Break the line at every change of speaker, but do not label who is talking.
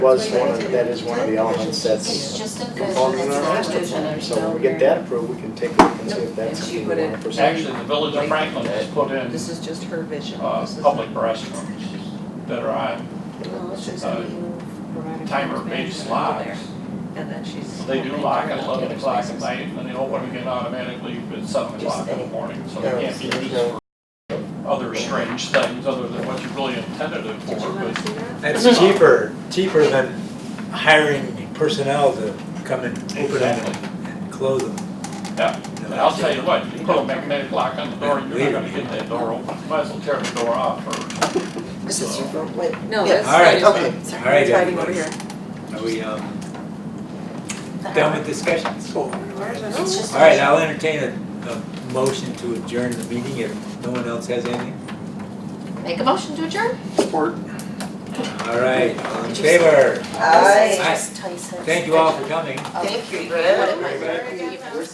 was one of, that is one of the elements
It's
that's
just a good,
conforming to our
it's
master
a vision
plan.
or
So when
so.
we get that approved, we can take a look and see if
And
that's
she
something
would
we
have-
want to pursue.
Actually, the village of Franklin has put in
This is just her vision.
uh,
This is-
public restrooms that are on
Well, it's just
Uh,
that you provide a
timer-based
Over there.
locks.
And then she's.
They do lock at eleven o'clock at
Spaces.
night, and they open again automatically at seven o'clock in the morning, so they can't be used for other strange things other than what you really intended it for,
Did you want to
but
see that?
It's cheaper, cheaper than hiring personnel to come and open them and close them.
Yeah, and I'll tell you what, you put a magnetic lock on the door, you're not gonna get that door open, might as well tear the door off first.
This is your phone, wait.
No,
Yeah.
that's.
All right.
Okay,
All
sorry.
right,
It's hiding over
everybody.
here.
Are we, um, done with discussions? All
It's just a
right,
vision.
I'll entertain a, a motion to adjourn the meeting if no one else has anything.
Make a motion to adjourn?
All right, all in favor?
Aye.
Just Tyson.
Thank you all for coming.
Thank you.
Rick.
What am I-